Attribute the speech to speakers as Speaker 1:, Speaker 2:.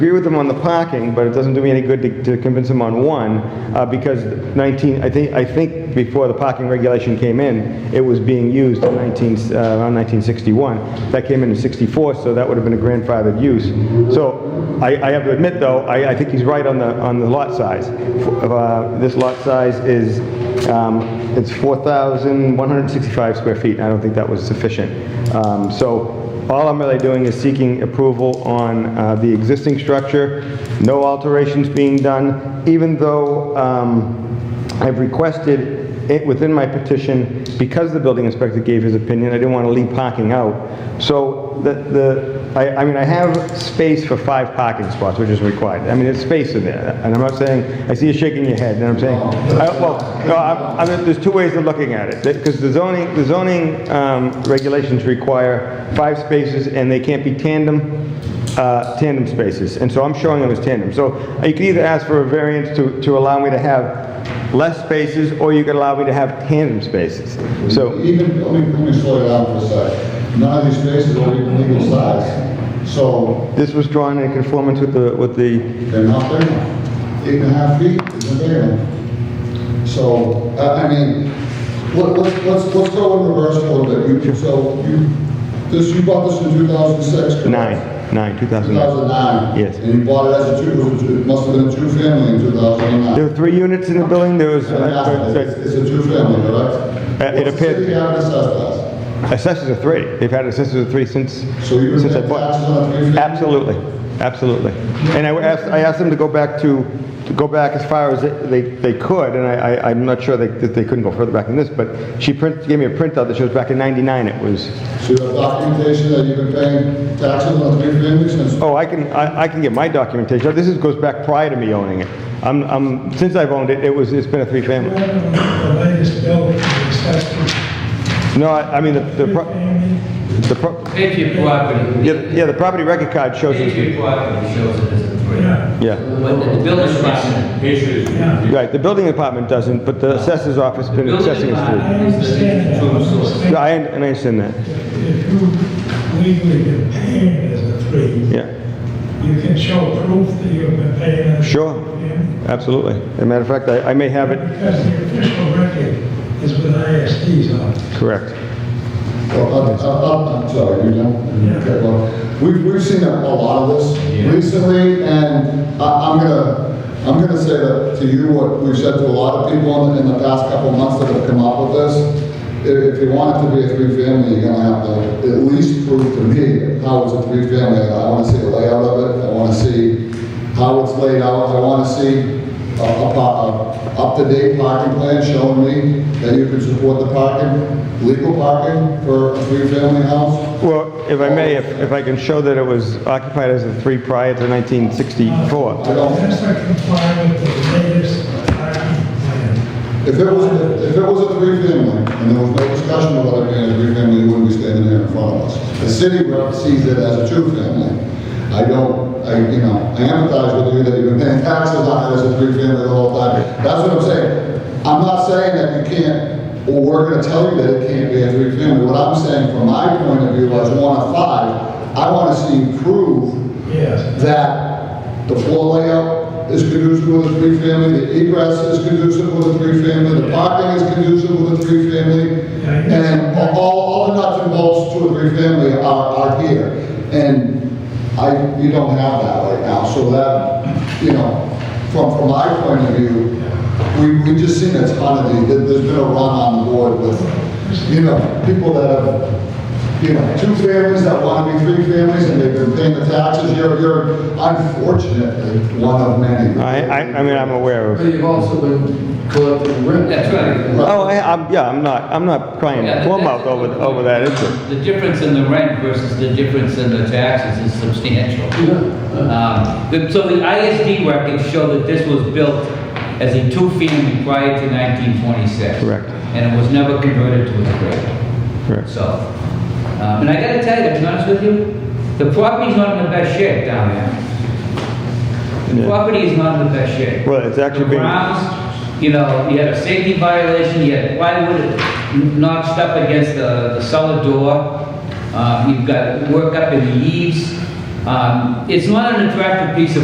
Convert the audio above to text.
Speaker 1: agree with him on the parking, but it doesn't do me any good to- to convince him on one, uh, because 19, I think, I think before the parking regulation came in, it was being used in 19, uh, around 1961. That came in in 64, so that would have been a grandfathered use. So I, I have to admit, though, I, I think he's right on the, on the lot size. Uh, This lot size is, um, it's 4,165 square feet, I don't think that was sufficient. Um, So all I'm really doing is seeking approval on uh, the existing structure, no alterations being done, even though um, I've requested it within my petition, because the building inspector gave his opinion, I didn't want to leave parking out. So the- the, I I mean, I have space for five parking spots, which is required. I mean, there's space in there, and I'm not saying, I see you shaking your head, and I'm saying, I- well, no, I'm- I mean, there's two ways of looking at it, because the zoning, the zoning um, regulations require five spaces, and they can't be tandem, uh, tandem spaces, and so I'm showing them as tandem. So you could either ask for a variance to, to allow me to have less spaces, or you could allow me to have tandem spaces. So,
Speaker 2: Even, let me, let me slow you down for a second. None of these spaces are even legal size, so
Speaker 1: this was drawn in conformance with the, with the,
Speaker 2: they're not there. Eight and a half feet isn't there. So, I, I mean, let, let's, let's, let's go in reverse a little bit. You, so you, this, you bought this in two thousand six, correct?
Speaker 1: nine, nine, 2009.
Speaker 2: 2009?
Speaker 1: Yes.
Speaker 2: And you bought it as a two, it was a two- it must have been a two-family in 2009?
Speaker 1: There were three units in the building, there was,
Speaker 2: It's
Speaker 1: uh,
Speaker 2: it's a two-family, correct?
Speaker 1: Uh, it
Speaker 2: What's the
Speaker 1: appeared-
Speaker 2: city having assessed us?
Speaker 1: uh, assessors of three, they've had assessors of three since,
Speaker 2: So you're
Speaker 1: since
Speaker 2: gonna
Speaker 1: I
Speaker 2: pay taxes
Speaker 1: bought.
Speaker 2: on a three-family?
Speaker 1: Absolutely, absolutely. And I asked, I asked them to go back to, to go back as far as they, they could, and I, I- I'm not sure they, that they couldn't go further back than this, but she print, gave me a printout that shows back in 99 it was,
Speaker 2: So you have documentation that you've been paying taxes on a three-family since?
Speaker 1: oh, I can, I, I can get my documentation, this is, goes back prior to me owning it. I'm, I'm, since I've owned it, it was, it's been a three-family.
Speaker 3: The latest bill is assessed
Speaker 1: No, I, I mean, the, the, pro-
Speaker 3: family.
Speaker 1: the, pro-
Speaker 4: If you property.
Speaker 1: yeah, yeah, the property record card shows
Speaker 4: If
Speaker 1: it,
Speaker 4: you property shows it as a three.
Speaker 3: Yeah.
Speaker 1: yeah.
Speaker 4: But the building department.
Speaker 3: Yeah.
Speaker 1: Right, the building department doesn't, but the assessor's office has been
Speaker 4: building
Speaker 1: assessing
Speaker 3: I
Speaker 1: us
Speaker 4: department-
Speaker 3: understand that. I
Speaker 1: through. Yeah,
Speaker 3: understand
Speaker 1: I, and I understand that,
Speaker 3: If you legally get paid as a three,
Speaker 1: yeah,
Speaker 3: you can show proof that you've been paying as a
Speaker 1: Sure.
Speaker 3: three-family.
Speaker 1: absolutely. As a matter of fact, I, I may have it,
Speaker 3: Because the official record is with ISD's office.
Speaker 1: correct.
Speaker 2: Well, I'm- I'm, I'm sorry, you know?
Speaker 3: Yeah.
Speaker 2: Okay, well, We've, we've seen a a lot of this recently, and I, I'm gonna, I'm gonna say that to you what we've said to a lot of people in the, in the past couple of months that have come up with this. If, if you want it to be a three-family, you're gonna have to at least prove to me how it's a three-family. I wanna see the layout of it, I wanna see how it's laid out, I wanna see a, a, po- a up-to-date parking plan showing me that you can support the parking, legal parking for a three-family house.
Speaker 1: Well, if I may, if, if I can show that it was occupied as a three prior to nineteen sixty-four.
Speaker 2: I don't-
Speaker 3: That's not complying with the latest parking plan.
Speaker 2: If it was, if it was a three-family, and there was no discussion about it being a three-family, it wouldn't be standing there in front of us. The city rep sees it as a two-family. I don't, I, you know, I empathize with you that you've been paying taxes on it as a three-family the whole time. That's what I'm saying. I'm not saying that you can't, or we're gonna tell you that it can't be a three-family. What I'm saying from my point of view as one of five, I wanna see you prove
Speaker 3: Yes.
Speaker 2: that the floor layout is conducive with a three-family, the egress is conducive with a three-family, the parking is conducive with a three-family, and all, all the nuts and bolts to a three-family are, are here. And I, you don't have that right now, so that, you know, from, from my point of view, we, we just seen a ton of these, There- there's been a run on the board with, you know, people that have you know, two families that want to be three families, and they've been paying the taxes, you're, you're unfortunately one of many.
Speaker 1: I, I, I mean, I'm aware of.
Speaker 5: But you've also been collecting rent.
Speaker 4: That's right.
Speaker 1: Oh, I, I'm, yeah, I'm not, I'm not crying
Speaker 4: Yeah,
Speaker 1: plum
Speaker 4: that's-
Speaker 1: out over, over that issue.
Speaker 4: The difference in the rent versus the difference in the taxes is substantial. Um, the- So the ISD records show that this was built as a two-family prior to 1926.
Speaker 1: Correct.
Speaker 4: And it was never converted to a three.
Speaker 1: Correct.
Speaker 4: So, um, and I gotta tell you, to be honest with you, the property's not in the best shape down there. The
Speaker 1: Yeah.
Speaker 4: property is not in the best shape.
Speaker 1: Well, it's actually
Speaker 4: The
Speaker 1: being-
Speaker 4: grounds, you know, you had a safety violation, you had plywood notched Um, up against the the cellar door. Uh, you've got work up in the eaves. Um, It's not an attractive piece of